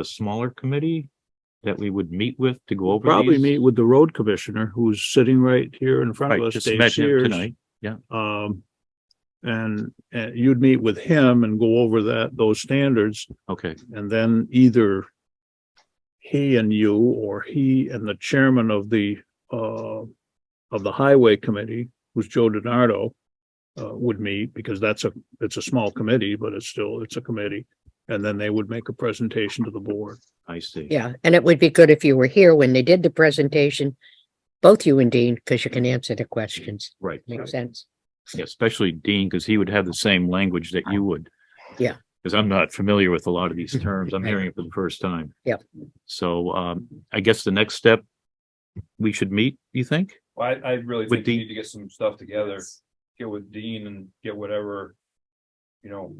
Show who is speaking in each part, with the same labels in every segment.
Speaker 1: a smaller committee that we would meet with to go over
Speaker 2: Probably
Speaker 1: these?
Speaker 2: meet with the road commissioner who's sitting right here in front
Speaker 1: Right,
Speaker 2: of us,
Speaker 1: just
Speaker 2: Dave
Speaker 1: mention it
Speaker 2: Sears.
Speaker 1: tonight.
Speaker 2: Um, and, uh you'd meet with him and go over that, those standards,
Speaker 1: Okay,
Speaker 2: and then either he and you, or he and the chairman of the, uh, of the highway committee, who's Joe DiNardo, uh, would meet, because that's a, it's a small committee, but it's still, it's a committee. And then they would make a presentation to the board.
Speaker 1: I see.
Speaker 3: Yeah, and it would be good if you were here when they did the presentation, both you and Dean, because you can answer the questions.
Speaker 1: Right.
Speaker 3: Makes sense.
Speaker 1: Yeah, Especially Dean, because he would have the same language that you would.
Speaker 3: Yeah.
Speaker 1: Because I'm not familiar with a lot of these terms. I'm hearing it for the first time.
Speaker 3: Yep.
Speaker 1: So um, I guess the next step, we should meet, you think?
Speaker 4: Well, I, I really
Speaker 1: With
Speaker 4: think we
Speaker 1: Dean.
Speaker 4: need to get some stuff together, get with Dean and get whatever, you know,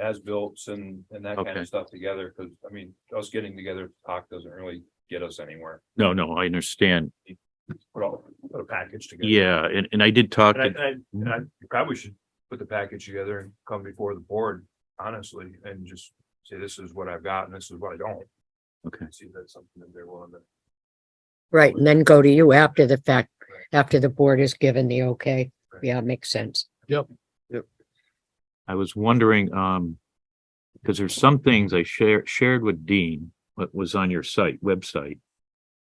Speaker 4: as builts and, and that kind
Speaker 1: Okay.
Speaker 4: of stuff together, because, I mean, us getting together to talk doesn't really get us anywhere.
Speaker 1: No, no, I understand.
Speaker 4: Put all, put a package together.
Speaker 1: Yeah, and, and I did talk,
Speaker 4: And I,
Speaker 1: to
Speaker 4: and I, and I you probably should put the package together and come before the board, honestly, and just say, this is what I've got and this is what I don't.
Speaker 1: Okay.
Speaker 4: See, if that's something that they're willing to.
Speaker 3: Right, and then go to you after the fact, after the board has given the okay. Yeah, makes sense.
Speaker 1: I was wondering, um, because there's some things I shared, shared with Dean, what was on your site, website.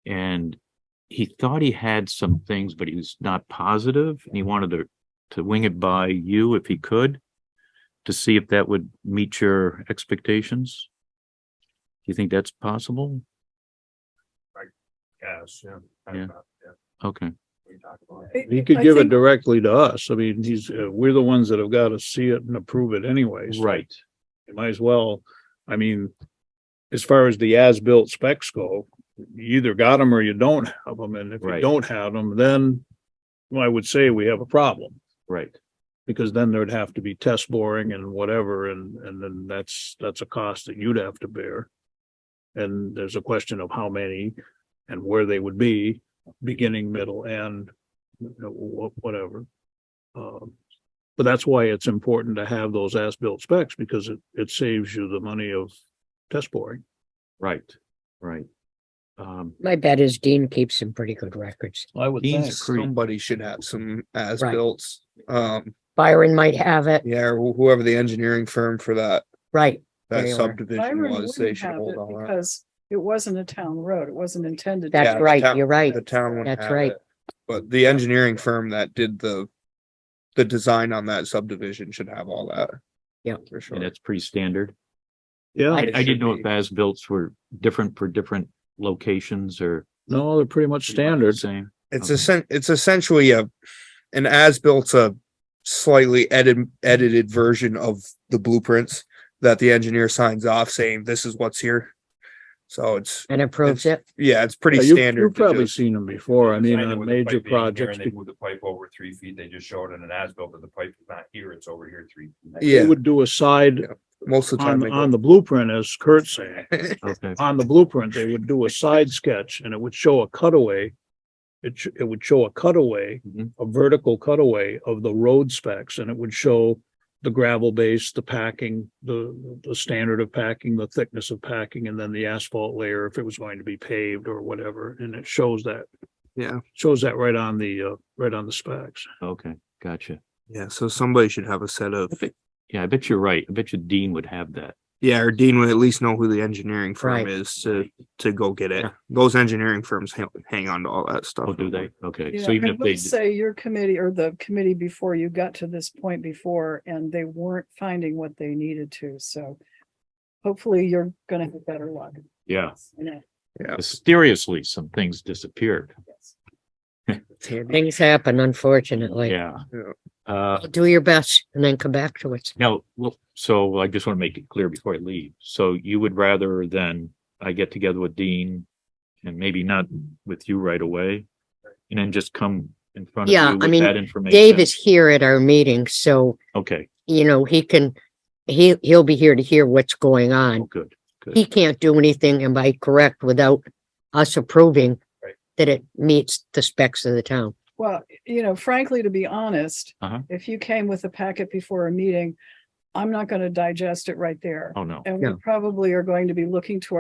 Speaker 1: And he thought he had some things, but he was not positive and he wanted to, to wing it by you if he could. To see if that would meet your expectations. Do you think that's possible?
Speaker 4: Yes, yeah.
Speaker 1: Yeah. Okay,
Speaker 4: We talked about it.
Speaker 2: He could give it directly to us. I mean, he's, uh, we're the ones that have got to see it and approve it anyways.
Speaker 1: right,
Speaker 2: You might as well, I mean, as far as the as-built specs go, you either got them or you don't have them, and if you
Speaker 1: Right.
Speaker 2: don't have them, then well, I would say we have a problem,
Speaker 1: right.
Speaker 2: because then there'd have to be test boring and whatever, and, and then that's, that's a cost that you'd have to bear. And there's a question of how many and where they would be, beginning, middle, and you know, wh- whatever. Um, but that's why it's important to have those as-built specs because it, it saves you the money of test boring.
Speaker 1: Right, right. Um,
Speaker 3: My bet is Dean keeps some pretty good records.
Speaker 2: I would
Speaker 1: Dean's Creek,
Speaker 5: Somebody should have some as
Speaker 3: Right.
Speaker 5: built, um,
Speaker 3: Byron might have it,
Speaker 5: yeah, or whoever the engineering firm for that,
Speaker 3: right,
Speaker 5: that
Speaker 3: They were.
Speaker 5: subdivision
Speaker 6: Byron
Speaker 5: was, they
Speaker 6: wouldn't
Speaker 5: should
Speaker 6: have
Speaker 5: hold
Speaker 6: it
Speaker 5: on that.
Speaker 6: because it wasn't a town road. It wasn't intended. to
Speaker 5: Yeah,
Speaker 3: that's
Speaker 5: the
Speaker 6: be.
Speaker 3: right,
Speaker 5: town-
Speaker 3: you're right.
Speaker 5: The town would
Speaker 3: That's
Speaker 5: have
Speaker 3: right.
Speaker 5: it. But the engineering firm that did the, the design on that subdivision should have all that.
Speaker 3: Yeah.
Speaker 5: For
Speaker 1: and
Speaker 5: sure.
Speaker 1: that's pretty standard.
Speaker 2: Yeah,
Speaker 3: It
Speaker 1: I didn't
Speaker 5: should
Speaker 1: know if
Speaker 5: be.
Speaker 1: as-bills were different for different locations or.
Speaker 2: no, they're pretty much standard.
Speaker 1: Same,
Speaker 5: It's
Speaker 1: Okay.
Speaker 5: essen- it's essentially a, an as built's a slightly edit, edited version of the blueprints that the engineer signs off saying, this is what's here. So it's,
Speaker 3: And approves it.
Speaker 5: yeah, it's
Speaker 2: Yeah,
Speaker 5: pretty
Speaker 2: you-
Speaker 5: standard.
Speaker 2: You've
Speaker 5: to
Speaker 2: probably
Speaker 5: just-
Speaker 2: seen them before. I mean,
Speaker 4: Designed it
Speaker 2: on
Speaker 4: with the
Speaker 2: major
Speaker 4: pipe being here and
Speaker 2: projects,
Speaker 4: They moved the pipe over three feet. They just showed in an as-built that the pipe is not here. It's over here three. feet.
Speaker 2: you
Speaker 5: Yeah,
Speaker 2: would do a side
Speaker 5: most of the time.
Speaker 2: on,
Speaker 5: they go-
Speaker 2: on the blueprint, as Kurt's saying.
Speaker 1: okay,
Speaker 2: on the blueprint, they would do a side sketch and it would show a cutaway. It, sh- it would show a cutaway,
Speaker 1: Mhm.
Speaker 5: Mm-hmm.
Speaker 2: a vertical cutaway of the road specs and it would show the gravel base, the packing, the, the standard of packing, the thickness of packing, and then the asphalt layer if it was going to be paved or whatever. And it shows that.
Speaker 5: Yeah.
Speaker 2: Shows that right on the, uh, right on the specs.
Speaker 1: okay, gotcha.
Speaker 5: Yeah, so somebody should have a set of,
Speaker 1: Yeah, I bet you're right. I bet you Dean would have that.
Speaker 5: yeah, or Dean would at least know who the engineering
Speaker 3: Right.
Speaker 5: firm is to, to go get it.
Speaker 1: Yeah.
Speaker 5: Those engineering firms hang, hang on to all that stuff.
Speaker 1: Oh, do they? Okay,
Speaker 6: Yeah,
Speaker 1: so even
Speaker 6: and
Speaker 1: if they,
Speaker 6: let's Say your committee or the committee before you got to this point before and they weren't finding what they needed to, so. Hopefully you're gonna have better luck.
Speaker 1: yeah,
Speaker 6: You know,
Speaker 1: mysteriously, some things disappeared.
Speaker 6: yes.
Speaker 3: Things happen, unfortunately.
Speaker 1: Yeah.
Speaker 5: Yeah.
Speaker 1: Uh,
Speaker 3: Do your best and then come back to it.
Speaker 1: now, look, so I just want to make it clear before I leave. So you would rather than I get together with Dean and maybe not with you right away and then just come in front of
Speaker 3: Yeah, I
Speaker 1: you with
Speaker 3: mean,
Speaker 1: that information?
Speaker 3: Dave is here at our meeting, so,
Speaker 1: Okay,
Speaker 3: you know, he can, he, he'll be here to hear what's going on.
Speaker 1: oh, good.
Speaker 3: he can't do anything, am I correct, without us approving
Speaker 4: Right.
Speaker 3: that it meets the specs of the town?
Speaker 6: Well, you know, frankly, to be honest,
Speaker 1: Uh-huh.
Speaker 6: if you came with a packet before a meeting, I'm not gonna digest it right there.
Speaker 1: Oh, no.
Speaker 6: And we
Speaker 3: Yeah.
Speaker 6: probably are going to be looking to